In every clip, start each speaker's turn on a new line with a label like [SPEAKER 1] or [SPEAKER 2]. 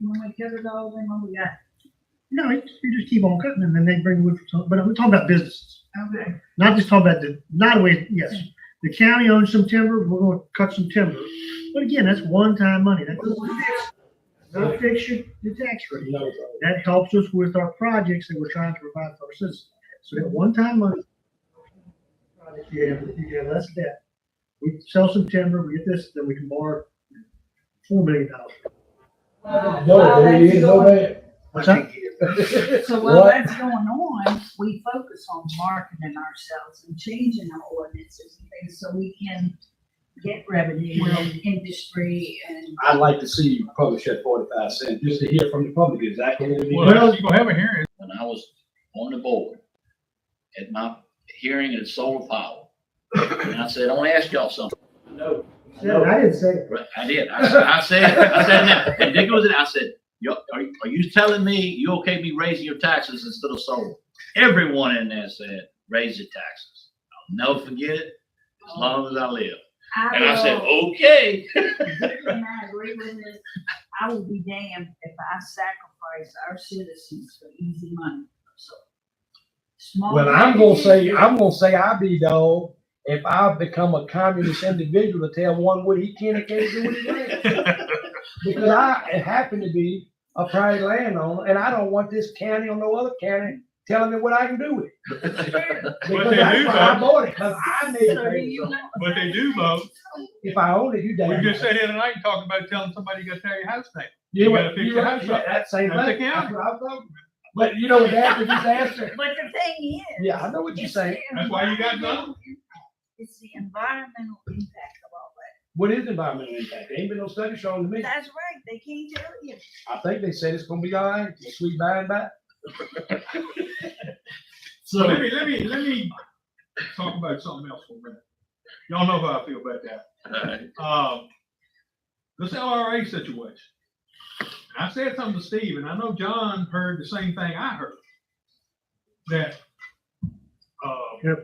[SPEAKER 1] when we get it all, then when we got,
[SPEAKER 2] No, you just, you just keep on cutting and then they bring wood from, but we're talking about businesses,
[SPEAKER 1] okay,
[SPEAKER 2] not just talking about the, not a way, yes. The county owns some timber, we're gonna cut some timber, but again, that's one-time money, that doesn't fix, not fix your, your tax rate. That helps us with our projects that we're trying to provide for our citizens. So that one-time money. project, You have, you have less debt. We sell some timber, we get this, then we can borrow four million dollars.
[SPEAKER 3] No, there you go, man.
[SPEAKER 2] What's that?
[SPEAKER 1] so while
[SPEAKER 3] What?
[SPEAKER 1] that's going on, we focus on marketing ourselves and changing our ordinances and things so we can get revenue and industry and.
[SPEAKER 3] I'd like to see you publish that forty-five cent, just to hear from the public exactly what it is.
[SPEAKER 4] Well, you gonna have a hearing.
[SPEAKER 5] when I was on the board at my hearing at solar power. And I said, I wanna ask y'all something.
[SPEAKER 3] No,
[SPEAKER 2] Yeah, I didn't say it.
[SPEAKER 5] Right, I did. I said, I said, I said, that. and Dick was in, I said, "Yo, are, you- are you telling me you okay me raising your taxes instead of solar? Everyone in there said, raise your taxes. I'll never forget it as long as I live. And I said,
[SPEAKER 1] um,
[SPEAKER 5] "Oh."
[SPEAKER 1] will-
[SPEAKER 5] okay.
[SPEAKER 1] And I agree with this, I will be damned if I sacrifice our citizens for easy money, so. small
[SPEAKER 3] Well, I'm gonna say,
[SPEAKER 1] businesses-
[SPEAKER 3] I'm gonna say I be dog if I become a communist individual to tell one what he can and can't do with his land. Because I happen to be a private landowner and I don't want this county or no other county telling me what I can do with it. Because
[SPEAKER 4] they
[SPEAKER 3] that's
[SPEAKER 4] do,
[SPEAKER 3] why I
[SPEAKER 4] though.
[SPEAKER 3] bought it, because I made
[SPEAKER 1] So do you
[SPEAKER 3] it.
[SPEAKER 1] want-
[SPEAKER 4] But they do vote.
[SPEAKER 3] If I own it, you damn.
[SPEAKER 4] We
[SPEAKER 3] right.
[SPEAKER 4] just sat here tonight and talked about telling somebody you gotta tear your house down.
[SPEAKER 3] You
[SPEAKER 4] You gotta
[SPEAKER 3] went-
[SPEAKER 4] fix
[SPEAKER 3] you
[SPEAKER 4] your
[SPEAKER 3] went-
[SPEAKER 4] house up.
[SPEAKER 3] yeah, That same thing.
[SPEAKER 4] That's the county.
[SPEAKER 3] That's what I'm talking about. But you know, that's a disaster.
[SPEAKER 1] But the thing is.
[SPEAKER 3] Yeah, I know what you're
[SPEAKER 1] it's
[SPEAKER 3] saying.
[SPEAKER 1] the
[SPEAKER 4] That's why you got none.
[SPEAKER 1] environmental impact. It's the environmental impact of all that.
[SPEAKER 3] What is environmental impact? There ain't been no study shown to me.
[SPEAKER 1] That's right, they can't tell you.
[SPEAKER 3] I think they said it's gonna be all right, sweet by and by.
[SPEAKER 4] So let me, let me, let me talk about something else for a minute. Y'all know how I feel about that. um, this LRA situation. And I said something to Steve, and I know John heard the same thing I heard. That, uh,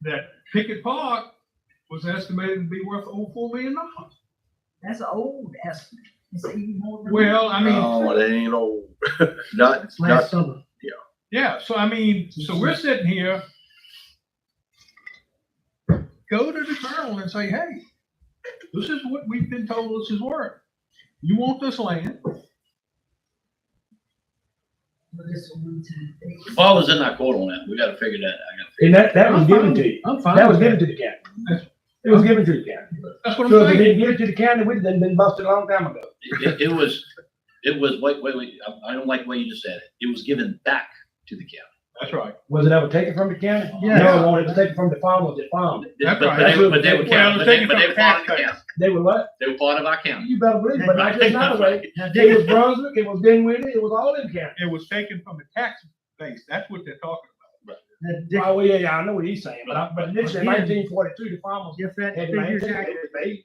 [SPEAKER 4] that Pickett Park was estimated to be worth over four million dollars.
[SPEAKER 1] That's an old estimate. It's even more than.
[SPEAKER 4] Well, I mean,
[SPEAKER 6] No, it ain't old. Not,
[SPEAKER 2] It's
[SPEAKER 6] not,
[SPEAKER 2] last summer.
[SPEAKER 4] yeah, so I mean, so we're sitting here. Go to the colonel and say, hey, this is what we've been told this is worth. You want this land,
[SPEAKER 1] But it's a one-time thing.
[SPEAKER 5] Paul is in our court on that. We gotta figure that out. I gotta
[SPEAKER 3] And that, that was given to you.
[SPEAKER 4] I'm fine.
[SPEAKER 3] That was
[SPEAKER 4] with
[SPEAKER 3] given to the county. It was given to the county.
[SPEAKER 4] That's what I'm
[SPEAKER 3] So if
[SPEAKER 4] saying.
[SPEAKER 3] they didn't give it to the county, we'd have been busted a long time ago.
[SPEAKER 5] It, it was, it was, wait, wait, wait, I, I don't like the way you just said it. It was given back to the county.
[SPEAKER 4] That's right.
[SPEAKER 3] Was it ever taken from the county?
[SPEAKER 2] Yeah.
[SPEAKER 3] No, no, it was taken from the farmers that farmed. it.
[SPEAKER 4] That's
[SPEAKER 5] But- but
[SPEAKER 4] right.
[SPEAKER 5] they- But they were
[SPEAKER 4] Well,
[SPEAKER 5] county, but they,
[SPEAKER 4] taken
[SPEAKER 5] but they
[SPEAKER 4] from
[SPEAKER 5] were part of the
[SPEAKER 4] taxpayers.
[SPEAKER 5] county.
[SPEAKER 3] They were what?
[SPEAKER 5] They were part of our county.
[SPEAKER 3] You better believe, it, but not just another way.
[SPEAKER 2] Now, Dick,
[SPEAKER 3] It was Brunswick, it was Dinwiddie, it was all in county.
[SPEAKER 4] It was taken from the tax base. That's what they're talking
[SPEAKER 2] now, Dick,
[SPEAKER 3] Oh, yeah, yeah, I know what he's saying, but I, but initially
[SPEAKER 2] Again.
[SPEAKER 3] nineteen forty-two, the farmers
[SPEAKER 2] if that
[SPEAKER 3] had
[SPEAKER 2] figure's
[SPEAKER 3] land,
[SPEAKER 2] accurate,
[SPEAKER 3] they,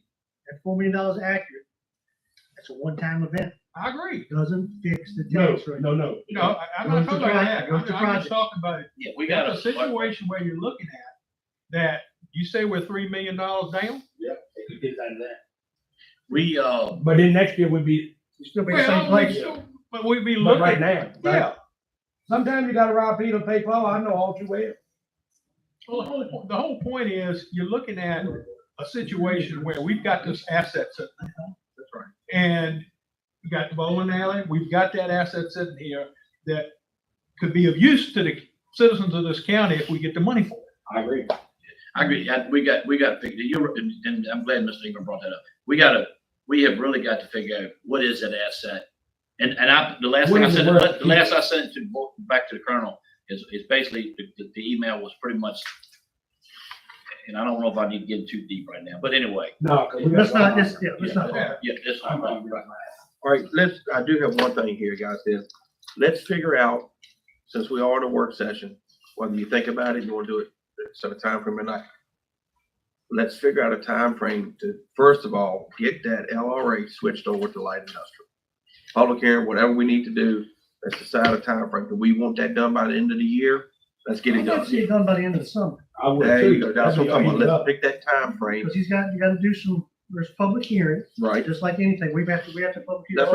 [SPEAKER 2] that four million dollars accurate, that's a one-time event,
[SPEAKER 4] about. I agree.
[SPEAKER 2] doesn't fix the
[SPEAKER 3] no,
[SPEAKER 2] tax rate.
[SPEAKER 3] no, no.
[SPEAKER 4] No, I- I'm not
[SPEAKER 2] What's
[SPEAKER 4] talking
[SPEAKER 2] the
[SPEAKER 4] about
[SPEAKER 2] project?
[SPEAKER 4] that. I'm
[SPEAKER 2] What's the
[SPEAKER 4] I'm just
[SPEAKER 2] project?
[SPEAKER 4] talking about it.
[SPEAKER 5] Yeah, we got
[SPEAKER 4] That's a
[SPEAKER 5] a,
[SPEAKER 4] situation where you're looking at that you say we're three million dollars down.
[SPEAKER 3] They could get out of that.
[SPEAKER 5] we, uh,
[SPEAKER 3] But then next year would be,
[SPEAKER 2] You still be the same
[SPEAKER 4] Well, we
[SPEAKER 2] place.
[SPEAKER 4] still- but we'd be
[SPEAKER 3] but right
[SPEAKER 4] looking,
[SPEAKER 3] now, right?
[SPEAKER 4] yeah.
[SPEAKER 3] Sometimes you gotta rob Peter, to pay Paul, I know all too well.
[SPEAKER 4] Well, the whole, po- the whole point is you're looking at a situation where we've got this asset sitting. That's right. And we got the bowling alley, we've got that asset sitting here that could be of use to the citizens of this county if we get the money for it.
[SPEAKER 3] I agree.
[SPEAKER 5] I agree, Yeah, we got, we got, to figure- you're, and and I'm glad Mr. Ingram brought that up. We gotta, we have really got to figure out what is that asset? And, and I, the last thing
[SPEAKER 3] What
[SPEAKER 5] I
[SPEAKER 3] is it
[SPEAKER 5] said,
[SPEAKER 3] worth?
[SPEAKER 5] the last I sent to, bo- back to the colonel is, is basically, the- the, the email was pretty much, and I don't know if I need to get too deep right now, but anyway,
[SPEAKER 3] No.
[SPEAKER 2] Let's not, let's, yeah, let's not.
[SPEAKER 4] Yeah.
[SPEAKER 5] yeah, this.
[SPEAKER 6] all right, let's, I do have one thing here, guys, is, let's figure out, since we are in a work session, whether you think about it, you wanna do it, set a time frame or not. Let's figure out a time frame to, first of all, get that LRA switched over to light industrial. Public hearing, whatever we need to do, let's decide a time frame. Do we want that done by the end of the year? Let's get
[SPEAKER 2] I'd
[SPEAKER 6] it
[SPEAKER 2] like to
[SPEAKER 6] done.
[SPEAKER 2] see it done by the end of the summer,
[SPEAKER 3] I would
[SPEAKER 6] There you
[SPEAKER 3] too.
[SPEAKER 6] go, that's what I'm talking about, let's pick that time frame.
[SPEAKER 2] because he's got, you gotta do some there's public hearing,
[SPEAKER 6] right?
[SPEAKER 2] just like anything, we've had to, we have to public hear.
[SPEAKER 6] That's